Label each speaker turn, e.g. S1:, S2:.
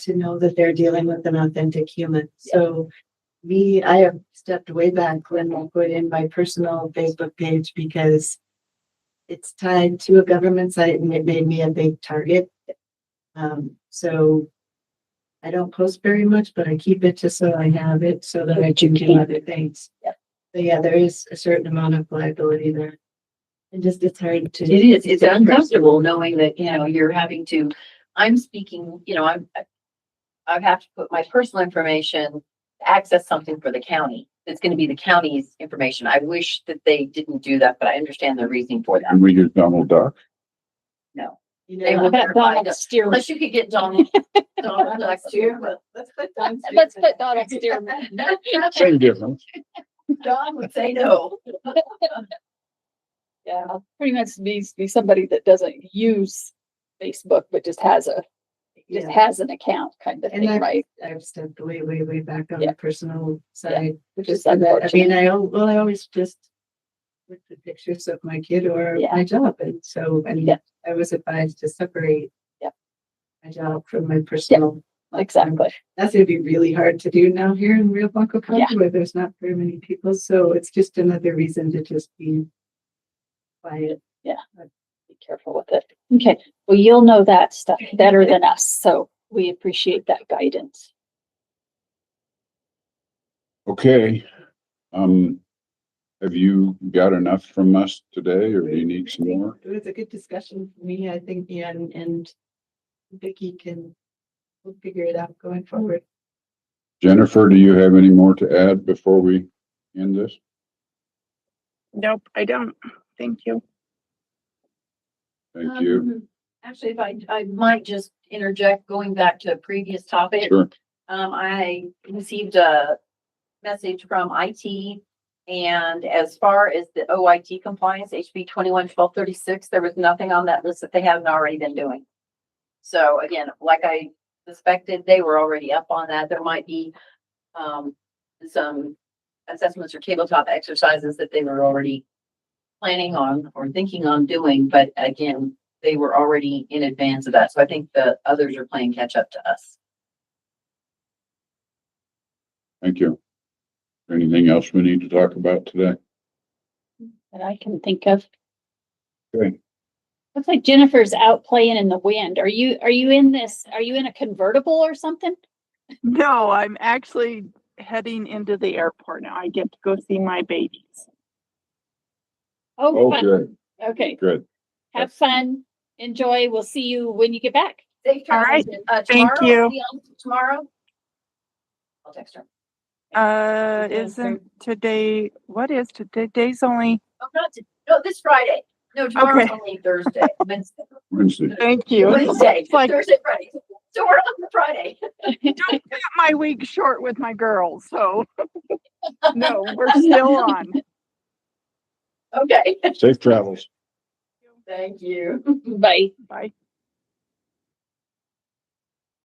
S1: to know that they're dealing with an authentic human. So me, I have stepped way back when I put in my personal Facebook page because it's tied to a government site and it made me a big target. Um, so I don't post very much, but I keep it just so I have it so that I can do other things.
S2: Yep.
S1: But yeah, there is a certain amount of liability there. And just it's hard to.
S2: It is, it's uncomfortable knowing that, you know, you're having to, I'm speaking, you know, I'm, I- I have to put my personal information, access something for the county. It's gonna be the county's information. I wish that they didn't do that, but I understand the reasoning for that.
S3: Can we use Donald Duck?
S2: No.
S1: You
S2: They
S1: know,
S2: will
S4: That
S2: provide
S4: Donald
S2: us,
S4: Stearman.
S2: unless you could get Donald, Donald next year, but
S1: let's put Don's
S4: Let's
S1: name in.
S4: put Donald Stearman.
S3: Same difference.
S2: Don would say no.
S4: Yeah, pretty much needs to be somebody that doesn't use Facebook, but just has a, just
S1: Yeah.
S4: has an account kind of
S1: And
S4: thing,
S1: I-
S4: right?
S1: I've stepped way, way, way back on
S4: Yeah.
S1: the personal side.
S4: Which
S1: Just
S4: is
S1: so that, I
S4: unfortunate.
S1: mean, I, al- well, I always just with the pictures of my kid or
S4: Yeah.
S1: my job. And so, I mean,
S4: Yeah.
S1: I was advised to separate
S4: Yep.
S1: my job from my personal.
S4: Exactly.
S1: That's gonna be really hard to do now here in Rio Blanco County
S4: Yeah.
S1: where there's not very many people. So it's just another reason to just be quiet.
S4: Be careful with it. Okay. Well, you'll know that stuff better than us. So we appreciate that guidance.
S3: Okay. Um, have you got enough from us today or do you need some more?
S1: It was a good discussion for me, I think, and, and Vicky can, we'll figure it out going forward.
S3: Jennifer, do you have any more to add before we end this?
S5: Nope, I don't. Thank you.
S3: Thank you.
S2: Um, Actually, if I, I might just interject, going back to a previous topic.
S3: Sure.
S2: Um, I received a message from IT. And as far as the OIT compliance, HB twenty-one twelve thirty-six, there was nothing on that list that they haven't already been doing. So again, like I suspected, they were already up on that. There might be, um, some assessments or tabletop exercises that they were already planning on or thinking on doing, but again, they were already in advance of that. So I think the others are playing catch up to us.
S3: Thank you. Anything else we need to talk about today?
S4: That I can think of.
S3: Okay.
S4: Looks like Jennifer's out playing in the wind. Are you, are you in this, are you in a convertible or something?
S5: No, I'm actually heading into the airport now. I get to go see my babies.
S4: Oh,
S3: Oh,
S4: fun.
S3: good,
S4: Okay.
S3: good.
S4: Have fun. Enjoy. We'll see you when you get back.
S2: Safe
S5: All right.
S2: travels. and, uh,
S5: Thank
S2: tomorrow-
S5: you.
S2: see y'all Tomorrow? I'll text her.
S5: Uh,
S4: Okay,
S5: isn't today, what is today? Today's only,
S2: Oh, not to, no, this Friday. No, tomorrow's
S5: Okay.
S2: only Thursday. Wednesday,
S3: Wednesday.
S5: thank you.
S2: Wednesday,
S5: It's like,
S2: Thursday, Friday. So we're on the Friday.
S5: don't cut my week short with my girls, so. No, we're still on.
S2: Okay.
S3: Safe travels.
S2: Thank you.
S4: Bye.
S5: Bye.